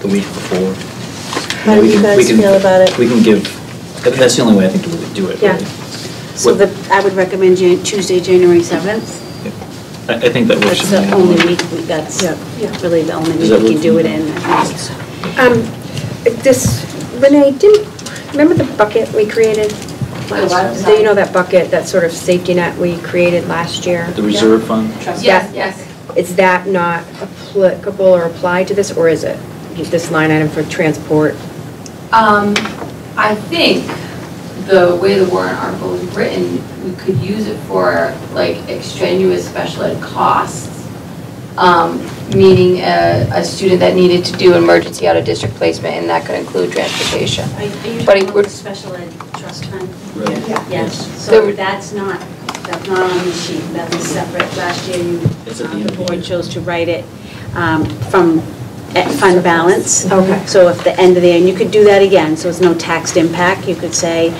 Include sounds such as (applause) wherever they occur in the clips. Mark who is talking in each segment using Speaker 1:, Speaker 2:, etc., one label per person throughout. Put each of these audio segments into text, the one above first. Speaker 1: the week before.
Speaker 2: How do
Speaker 1: We
Speaker 2: you
Speaker 1: can- we
Speaker 2: guys
Speaker 1: can-
Speaker 2: feel about it?
Speaker 1: We can give, that- that's the only way I think to really do it,
Speaker 3: Yeah.
Speaker 1: really.
Speaker 3: So
Speaker 1: What-
Speaker 3: the, I would recommend Jan- Tuesday, January 7th.
Speaker 1: yeah. I, I think that works.
Speaker 3: That's
Speaker 1: for
Speaker 3: the
Speaker 1: me.
Speaker 3: only week, we- that's
Speaker 2: Yeah.
Speaker 3: really the only
Speaker 1: Does
Speaker 3: week
Speaker 1: that
Speaker 3: we can
Speaker 1: work
Speaker 3: do
Speaker 1: for
Speaker 3: it
Speaker 1: you?
Speaker 3: in. I think.
Speaker 4: Um, this, Renee, didn't, remember the bucket we created? last Do you know that bucket, that sort of safety net we created last year?
Speaker 1: The reserve fund?
Speaker 5: Yes, yes.
Speaker 4: Is that not applicable or applied to this, or is it? This line item for transport?
Speaker 5: Um, I think the way the warrant article is written, we could use it for like extraneous special ed costs. Um, meaning a, a student that needed to do emergency out-of-district placement, and that could include transportation.
Speaker 3: Are are you
Speaker 5: But it
Speaker 3: talking about
Speaker 5: would-
Speaker 3: the special ed trust fund?
Speaker 1: Right.
Speaker 3: Yes,
Speaker 5: There
Speaker 3: so
Speaker 5: would-
Speaker 3: that's not, that's not on the sheet, that was separate. Last year, you,
Speaker 1: It's at the
Speaker 3: um,
Speaker 1: end
Speaker 3: the
Speaker 1: of the
Speaker 3: board
Speaker 1: year.
Speaker 3: chose to write it um, from eh, fund balance.
Speaker 4: Okay.
Speaker 3: So if the end of the year, and you could do that again, so it's no taxed impact, you could say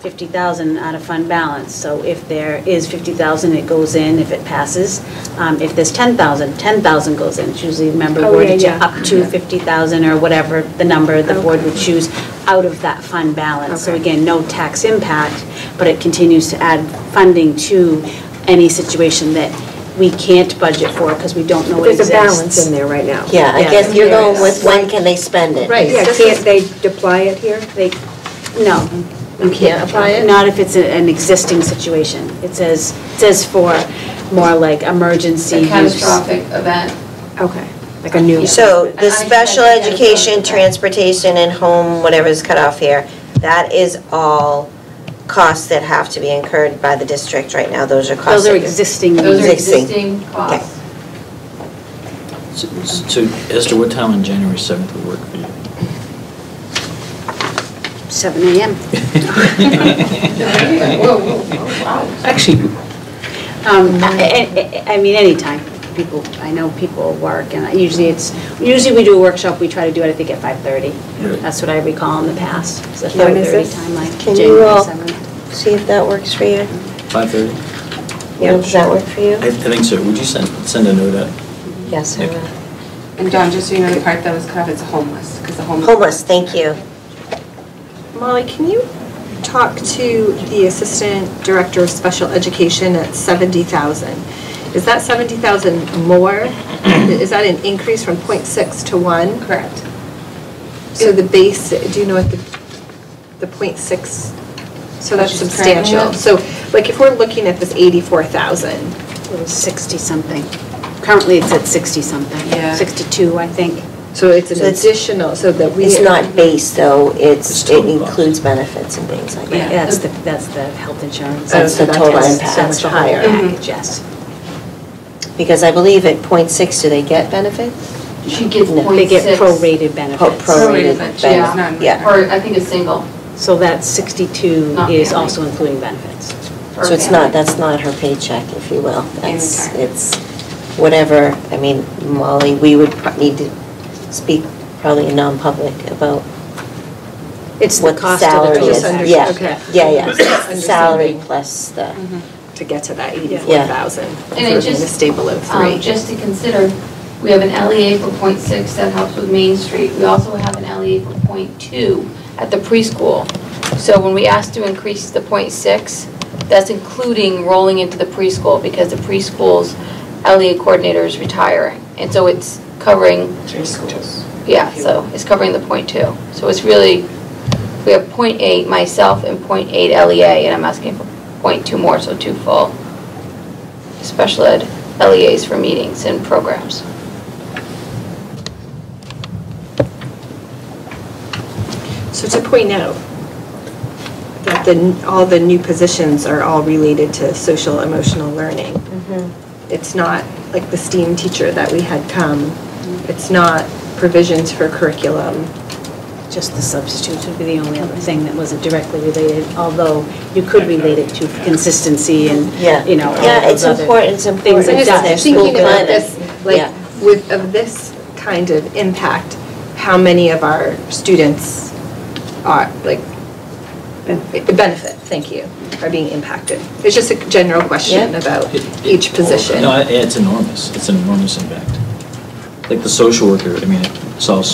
Speaker 3: 50,000 out of fund balance. So if there is 50,000, it goes in if it passes. Um, If there's 10,000, 10,000 goes in. It's usually, remember,
Speaker 4: Oh,
Speaker 3: worded
Speaker 4: yeah,
Speaker 3: to
Speaker 4: yeah.
Speaker 3: up to 50,000 or whatever the number the board would choose out of that fund balance. So
Speaker 4: Okay.
Speaker 3: again, no tax impact, but it continues to add funding to any situation that we can't budget for because we don't know it
Speaker 4: There's a
Speaker 3: exists.
Speaker 4: balance in there right now.
Speaker 6: Yeah, I guess you're going with when can they spend it?
Speaker 7: Right.
Speaker 4: Yeah,
Speaker 7: This
Speaker 4: can't
Speaker 7: is-
Speaker 4: they deploy it here?
Speaker 3: They, no.
Speaker 7: You can't apply it?
Speaker 3: Not if it's a- an existing situation. It says, it says for more like emergency
Speaker 5: A
Speaker 3: use.
Speaker 5: catastrophic event.
Speaker 4: Okay, like a new.
Speaker 6: So
Speaker 5: I- I
Speaker 6: the special
Speaker 5: think that's-
Speaker 6: education, transportation, and home, whatever's cut off here, that is all costs that have to be incurred by the district right now. Those are costs.
Speaker 3: Those are
Speaker 6: that-
Speaker 3: existing.
Speaker 5: Those are
Speaker 6: Existing.
Speaker 5: existing costs.
Speaker 1: So, so Esther, what time on January 7th would work for you?
Speaker 3: Seven AM.
Speaker 5: (laughs) Whoa, whoa, whoa, wow.
Speaker 1: Actually,
Speaker 3: Um,
Speaker 6: Mm-hmm.
Speaker 3: I I- I- I mean, anytime. People, I know people work, and I- usually it's, usually we do a workshop, we try to do it, I think, at 5:30.
Speaker 1: Right.
Speaker 3: That's what I recall in the past, It's a
Speaker 4: When is
Speaker 3: 5:30
Speaker 4: this?
Speaker 3: time, like
Speaker 6: Can you
Speaker 3: January
Speaker 6: all-
Speaker 3: 7th.
Speaker 6: See if that works for you.
Speaker 1: Mm-hmm. 5:30?
Speaker 6: Will, Does that work for you?
Speaker 1: I I think so. Would you send, send a note out?
Speaker 6: Yes, I will.
Speaker 8: And Don, just so you know, the part that was cut off is homeless, because the homeless.
Speaker 6: Homeless, thank you.
Speaker 7: Molly, can you talk to the Assistant Director of Special Education at 70,000? Is that 70,000 more? Is that an increase from .6 to 1?
Speaker 8: Correct.
Speaker 7: So the base, do you know what the, the .6, so that's
Speaker 8: Which is current
Speaker 7: substantial.
Speaker 8: amount?
Speaker 7: So like if we're looking at this 84,000,
Speaker 3: It was 60-something. Currently, it's at 60-something.
Speaker 8: Yeah.
Speaker 3: 62, I think.
Speaker 7: so it's an
Speaker 6: So it's-
Speaker 7: additional, so that we.
Speaker 6: It's not base, though,
Speaker 1: It's
Speaker 6: it's, it
Speaker 1: total cost.
Speaker 6: includes benefits and things like
Speaker 3: Yeah,
Speaker 6: that.
Speaker 3: That's the, that's the health insurance.
Speaker 7: Oh,
Speaker 6: That's
Speaker 7: so
Speaker 6: the total
Speaker 7: that's-
Speaker 6: impact.
Speaker 7: so much
Speaker 3: That's the whole
Speaker 7: higher.
Speaker 3: package, yes.
Speaker 6: Because I believe at point six, do they get benefits?
Speaker 5: She gets
Speaker 6: No.
Speaker 3: They
Speaker 5: point six.
Speaker 3: get prorated
Speaker 6: Po-
Speaker 3: benefits.
Speaker 6: Prorated
Speaker 8: Prorated,
Speaker 6: benefits,
Speaker 5: yeah.
Speaker 6: yeah.
Speaker 5: Or I think a single.
Speaker 3: So that 62
Speaker 5: Not
Speaker 3: is
Speaker 5: family.
Speaker 3: also including benefits.
Speaker 5: per
Speaker 6: So it's
Speaker 5: family.
Speaker 6: not, that's not her paycheck, if you will. That's,
Speaker 8: Okay.
Speaker 6: it's whatever, I mean, Molly, we would pro- need to speak probably in non-public about
Speaker 3: It's the
Speaker 6: what the
Speaker 3: cost of the
Speaker 6: salary
Speaker 7: total
Speaker 6: is.
Speaker 7: package.
Speaker 6: Yeah,
Speaker 7: Okay.
Speaker 6: yeah, yeah. It's the salary
Speaker 7: Understanding.
Speaker 6: plus the,
Speaker 7: to get to that 84,000 for
Speaker 5: And it
Speaker 7: being a
Speaker 5: just,
Speaker 7: stable of three.
Speaker 5: Um, Just to consider, we have an LEA for .6 that helps with Main Street. We also have an LEA for .2 at the preschool. So when we ask to increase the .6, that's including rolling into the preschool because the preschool's LEA coordinator is retiring. And so it's covering,
Speaker 8: Three schools.
Speaker 5: yeah, so it's covering the .2. So it's really, we have .8 myself and .8 LEA, E and I'm asking for .2 more, so two full special ed LEAs for meetings and programs.
Speaker 7: So to point out that the, all the new positions are all related to social emotional learning. It's not like the STEAM teacher that we had come. It's not provisions for curriculum.
Speaker 3: Just the substitutes would be the only other thing that wasn't directly related, although you could relate it to consistency and,
Speaker 6: yeah.
Speaker 3: you know, all
Speaker 6: Yeah,
Speaker 3: those
Speaker 6: it's
Speaker 3: other
Speaker 6: important, it's important.
Speaker 3: Things
Speaker 7: I'm
Speaker 3: that
Speaker 6: that
Speaker 7: just
Speaker 6: their
Speaker 3: does.
Speaker 6: school
Speaker 7: thinking about
Speaker 6: climate-
Speaker 7: this,
Speaker 6: Yeah.
Speaker 7: like, with, of this kind of impact, how many of our students are, like, the benefit, thank you, are being impacted? It's just a general question
Speaker 6: Yeah.
Speaker 7: about
Speaker 1: It- it-
Speaker 7: each position.
Speaker 1: No, I- it's enormous. It's an enormous impact. Like the social worker, I mean, it solves